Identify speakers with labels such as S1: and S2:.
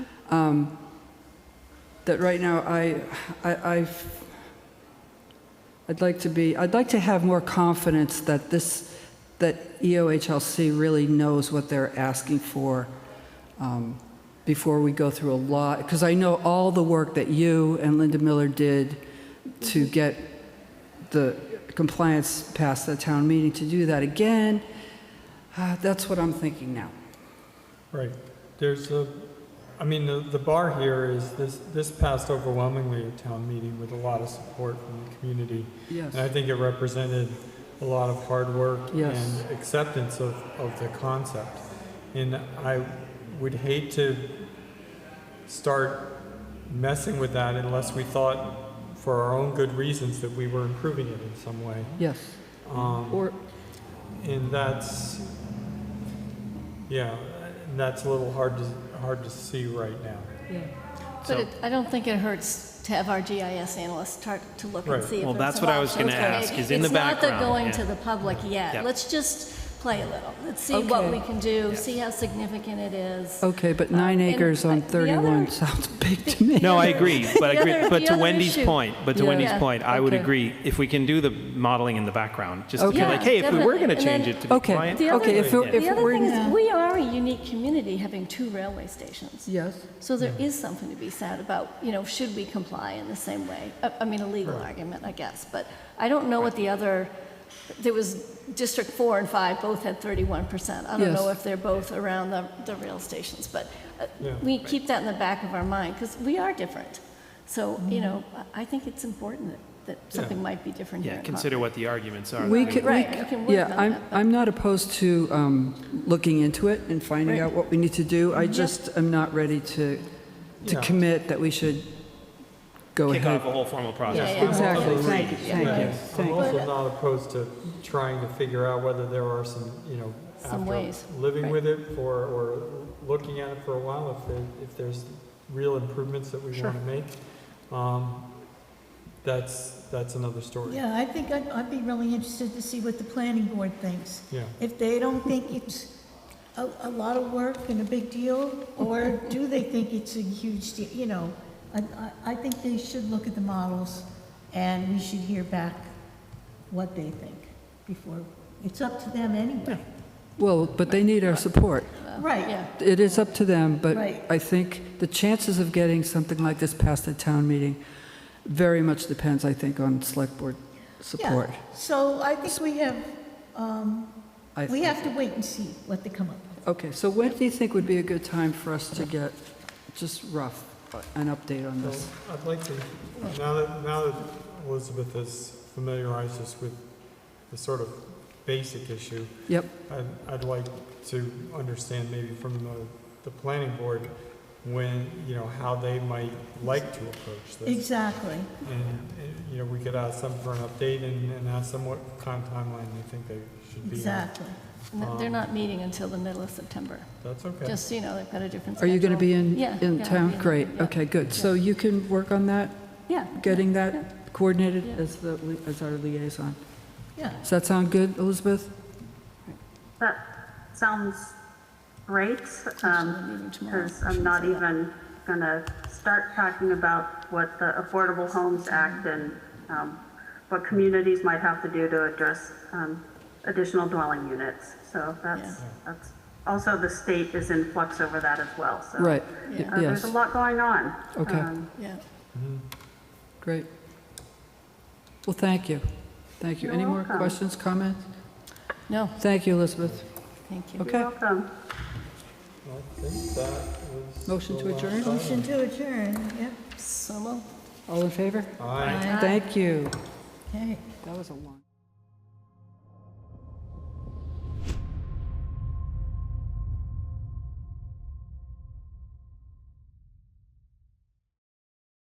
S1: um, that right now, I, I, I've, I'd like to be, I'd like to have more confidence that this, that E EOHLC really knows what they're asking for um, before we go through a lot, because I know all the work that you and Linda Miller did to get the compliance past the town meeting, to do that again, uh, that's what I'm thinking now.
S2: Right. There's a, I mean, the, the bar here is this, this passed overwhelmingly at town meeting with a lot of support from the community.
S1: Yes.
S2: And I think it represented a lot of hard work
S1: Yes.
S2: and acceptance of, of the concept. And I would hate to start messing with that unless we thought for our own good reasons that we were improving it in some way.
S1: Yes. Mm-hmm.
S2: Um,
S1: Or,
S2: and that's, yeah, and that's a little hard to, hard to see right now.
S1: yeah.
S2: So-
S3: But it- I don't think it hurts to have our GIS analysts start to look and
S2: Right.
S3: see if
S4: Well,
S3: there's
S4: that's
S3: some
S4: what I was gonna
S3: options.
S4: ask, is in the
S3: It's not
S4: background,
S3: the going
S4: yeah.
S3: to the public
S4: Yeah.
S3: yet. Let's just play a little. Let's see what
S1: Okay.
S3: we can do, see how significant it is.
S1: Okay, but
S3: Um,
S1: nine
S3: and
S1: acres on
S3: I- the other-
S1: 31 sounds big to me.
S4: No, I agree, but I
S3: The
S4: agree,
S3: other-
S4: but
S3: the
S4: to
S3: other
S4: Wendy's
S3: issue.
S4: point, but to
S1: Yeah.
S4: Wendy's
S3: Yeah.
S4: point, I would
S1: Okay.
S4: agree, if we can do the modeling in the background, just to be
S1: Okay.
S4: like, hey, if we were
S3: Yeah,
S4: gonna
S3: definitely.
S4: change
S3: And
S4: it to be
S1: Okay,
S4: compliant.
S3: The other-
S1: okay, if, it-
S3: The
S1: if
S3: other
S1: we're,
S3: thing is,
S1: in-
S3: we are a unique community, having two railway stations.
S1: yes,
S3: So there is something to be said about, you know, should we comply in the same way? I- I mean, a legal argument, I guess, but I don't know what the other, there was District 4 and 5 both had 31%. I don't
S1: Yes.
S3: know if they're both around the, the rail stations, but uh,
S2: Yeah.
S3: we keep that in the back of our mind, because we are different. So,
S1: Mm-hmm.
S3: you know, I- I think it's important that- that something might be different here.
S4: Yeah,
S3: in
S4: consider what the arguments are.
S1: we
S4: that
S1: could,
S3: Right, you can work
S1: yeah,
S3: on
S1: I'm,
S3: that, but-
S1: I'm not opposed to um, looking into it and finding
S3: Right.
S1: out what we need to do. I just am not ready to, to
S2: Yeah.
S1: commit that we should go
S4: Kick off
S1: ahead.
S4: a whole formal
S3: Yeah,
S4: process.
S3: yeah.
S1: Exactly,
S5: Thank you, thank you,
S2: I'm
S5: thank you.
S2: also not opposed to trying to figure out whether there are some, you know,
S3: Some ways,
S2: after living
S3: right.
S2: with it for, or looking at it for a while, if, there- if there's real improvements that we want to make, um, that's, that's another story.
S5: Yeah, I think I'd, I'd be really interested to see what the planning board thinks.
S2: Yeah.
S5: If they don't think it's a, a lot of work and a big deal, or do they think it's a huge deal, you know? I, I, I think they should look at the models, and we should hear back what they think before, it's up to them anyway. Uh,
S1: Well, but they need our support.
S5: Right,
S3: Yeah,
S1: It is up to them, but
S5: Right.
S1: I think the chances of getting something like this past the town meeting very much depends, I think, on select board
S5: yeah.
S1: support.
S5: So I think we have, um,
S1: I
S5: we
S1: think.
S5: have to wait and see what they come up with.
S1: Okay, so when do you think would be a good time for us to get, just rough, an update on
S2: So
S1: this?
S2: I'd like to, now that, now that Elizabeth has familiarized us with the sort of basic issue,
S1: Yep,
S2: I'd, I'd like to understand maybe from the, the planning board, when, you know, how they might like to approach this.
S5: Exactly.
S2: And, and, you know, we could ask them for an update and, and ask them what kind of timeline they think they should be on.
S5: Exactly.
S3: And
S1: Um,
S3: they're not meeting until the middle of September,
S2: That's okay.
S3: just so you know, they've got a different
S1: are
S3: schedule.
S1: you going to be in,
S3: Yeah,
S1: in
S3: yeah, I'll be
S1: town? Great,
S3: yeah.
S1: okay, good. So you can work on that,
S3: Yeah.
S1: getting that coordinated
S3: Yeah.
S1: as the, li- as our liaison.
S5: Yeah.
S1: Does that sound good, Elizabeth?
S6: That sounds great,
S3: the meeting tomorrow.
S6: because Um, I'm not even going to start talking about what the Affordable Homes
S1: Mm-hmm.
S6: Act and um, what communities might have to do to address um, additional dwelling units. So that's,
S3: Yeah.
S6: that's, also the state is in flux over that as well, so.
S1: Right, y-
S3: Yeah.
S6: uh, There's
S1: yes,
S6: a lot going on.
S1: Okay.
S6: Um,
S3: Yeah.
S1: great. Well, thank you, thank you.
S6: You're
S1: Any more
S6: welcome.
S1: questions, comments?
S3: No,
S1: Thank you, Elizabeth.
S3: thank you.
S1: Okay,
S6: Welcome.
S2: I think that was.
S1: motion to adjourn,
S5: Motion to adjourn, yep.
S3: So moved.
S1: all in favor?
S2: Aye.
S1: Thank you.
S5: Okay.
S1: That was a long.